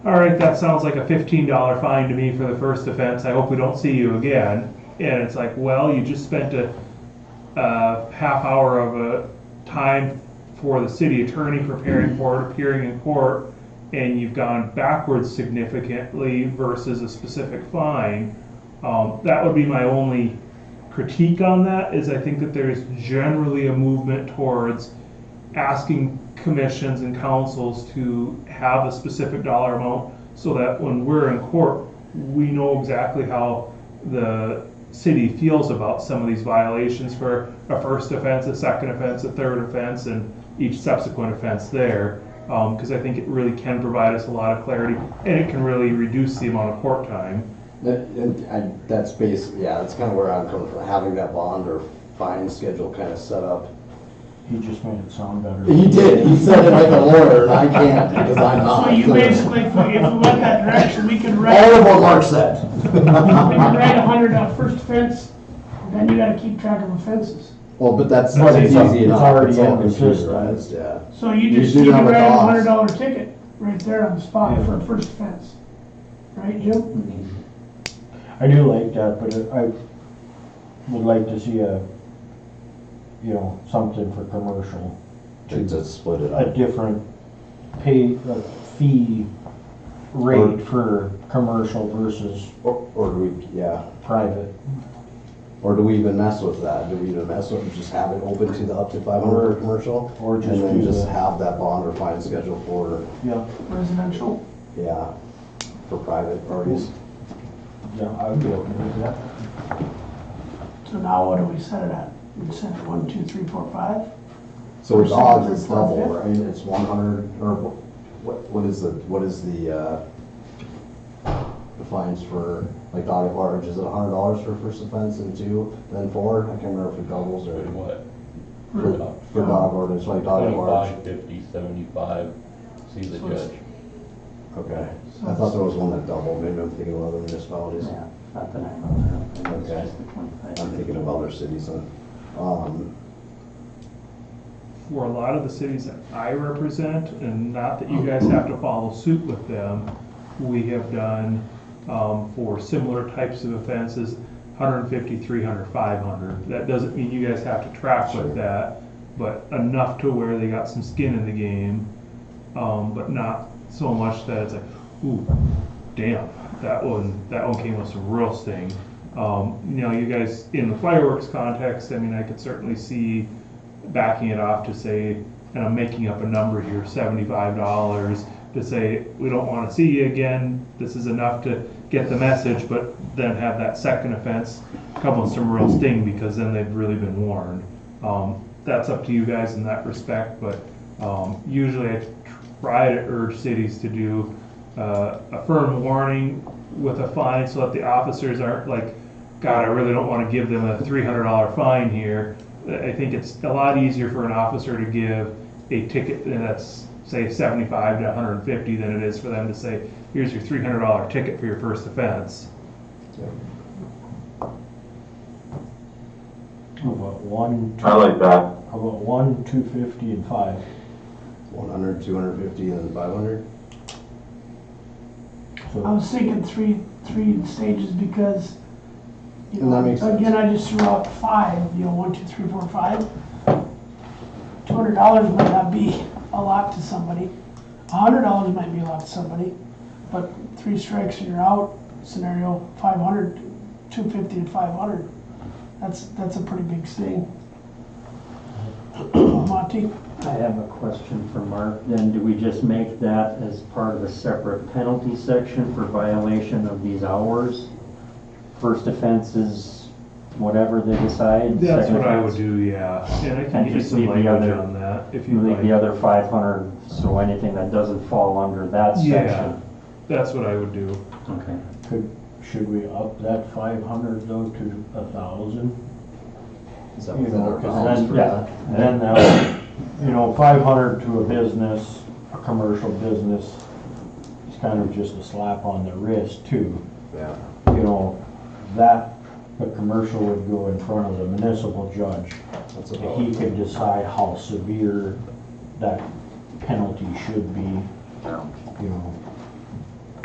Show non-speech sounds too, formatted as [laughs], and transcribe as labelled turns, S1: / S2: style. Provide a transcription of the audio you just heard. S1: all right, that sounds like a fifteen dollar fine to me for the first offense, I hope we don't see you again. And it's like, well, you just spent a, a half hour of a time for the city attorney preparing for it, appearing in court, and you've gone backwards significantly versus a specific fine. Um, that would be my only critique on that, is I think that there's generally a movement towards asking commissions and councils to have a specific dollar amount so that when we're in court, we know exactly how the city feels about some of these violations for a first offense, a second offense, a third offense, and each subsequent offense there. Because I think it really can provide us a lot of clarity and it can really reduce the amount of court time.
S2: That, and I, that's basically, yeah, that's kind of where I'm coming from, having that bond or fine schedule kind of set up.
S3: He just made it sound better.
S2: He did, he said it like a lawyer, and I can't, because I'm not.
S4: So you basically, if we went that direction, we could write,
S2: Oh, All of
S4: we
S2: what Mark said.
S4: could write a hundred on first offense, then you gotta keep track of offenses.
S2: [laughs] Well, but that's,
S3: Well,
S2: that's
S3: it's-
S2: easy enough.
S3: it's already
S2: all
S3: in the system.
S2: computerized, Yeah.
S4: So you
S2: You
S4: just,
S2: do
S4: you
S2: that
S4: can
S2: with
S4: write a
S2: dogs.
S4: hundred dollar ticket right there on the spot
S3: Yeah.
S4: for a first offense. Right, Jim?
S3: [laughs] I do like that, but I would like to see a, you know, something for commercial.
S2: To just split it
S3: A
S2: up.
S3: different pay, a fee rate for commercial versus
S2: Or, or do we, yeah,
S3: private.
S2: or do we even mess with that? Do we even mess with, just have it open to the up to five hundred commercial?
S3: Or just
S2: And then
S3: do
S2: just
S3: the-
S2: have that bond or fine schedule for,
S3: Yeah,
S4: Residential.
S2: yeah, for private parties.
S3: yeah, I would be open to that.
S4: So now what do we set it at? We set it one, two, three, four, five?
S2: So it's
S4: Percent
S2: odds,
S4: of
S2: it's
S4: the profit.
S2: double, right? It's one hundred, or wh- what, what is the, what is the, uh, the fines for, like, dog at large? Is it hundred dollars for first offense and two, then four? I can't remember if it doubles
S5: Or
S2: or
S5: what?
S2: for, for dog ordinance, like dog at large.
S5: Twenty-five, fifty, seventy-five, see the
S4: So it's-
S5: judge.
S2: Okay. I thought there was one that doubled. Maybe I'm thinking of other municipalities.
S4: Not that I know of. It's
S2: Okay.
S4: just the 25.
S2: I'm thinking of other cities. then. Um,
S1: for a lot of the cities that I represent, and not that you guys have to follow suit with them, we have done, um, for similar types of offenses, 150, 300, 500. That doesn't mean you guys have to track
S2: Sure.
S1: with that, but enough to where they got some skin in the game, um, but not so much that it's like, ooh, damn, that one, that one came with some real sting. Um, you know, you guys, in the fireworks context, I mean, I could certainly see backing it off to say, and I'm making up a number here, seventy-five dollars, to say, we don't wanna see you again, this is enough to get the message, but then have that second offense come with some real sting, because then they've really been warned. Um, that's up to you guys in that respect, but, um, usually I try to urge cities to do, uh, a firm warning with a fine, so that the officers aren't like, God, I really don't wanna give them a three hundred dollar fine here, I think it's a lot easier for an officer to give a ticket that's, say, seventy-five to hundred and fifty than it is for them to say, here's your three hundred dollar ticket for your first offense.
S3: How about one, two-
S6: I like that.
S3: how about one, two fifty and five?
S2: 100, 250, and then 500?
S4: I
S3: So
S4: was thinking three, three stages because, you
S2: And that
S4: know,
S2: makes sense.
S4: again, I just threw out five, you know, one, two, three, four, five. Two hundred dollars might not be a lot to somebody. A hundred dollars might be a lot to somebody, but three strikes and you're out scenario, five hundred, two fifty to five hundred. That's, that's a pretty big sting. Monty,
S7: I have a question for Mark, then do we just make that as part of a separate penalty section for violation of these hours? First offense is whatever they decide.
S1: That's
S7: second
S1: what I would
S7: offense,
S1: do, yeah, and I
S7: And
S1: can get
S7: just
S1: some
S7: leave the
S1: language
S7: other-
S1: on that, if
S7: You
S1: you'd
S7: leave the
S1: like.
S7: other five hundred, so anything that doesn't fall under that
S1: Yeah,
S7: section.
S1: that's what I would do.
S7: Okay.
S3: could, should we up that five hundred though to a thousand?
S2: Is that
S3: You
S2: within
S3: know,
S2: our
S3: 'cause
S2: bounds
S3: then-
S2: for
S3: yeah,
S2: that?
S3: Then that, would- uh, you know, five hundred to a business, a commercial business, it's kind of just a slap on the wrist too.
S2: Yeah.
S3: You know, that, the commercial would go in front of the municipal judge.
S2: That's
S3: And
S2: about
S3: he could decide how severe that penalty should be, you know.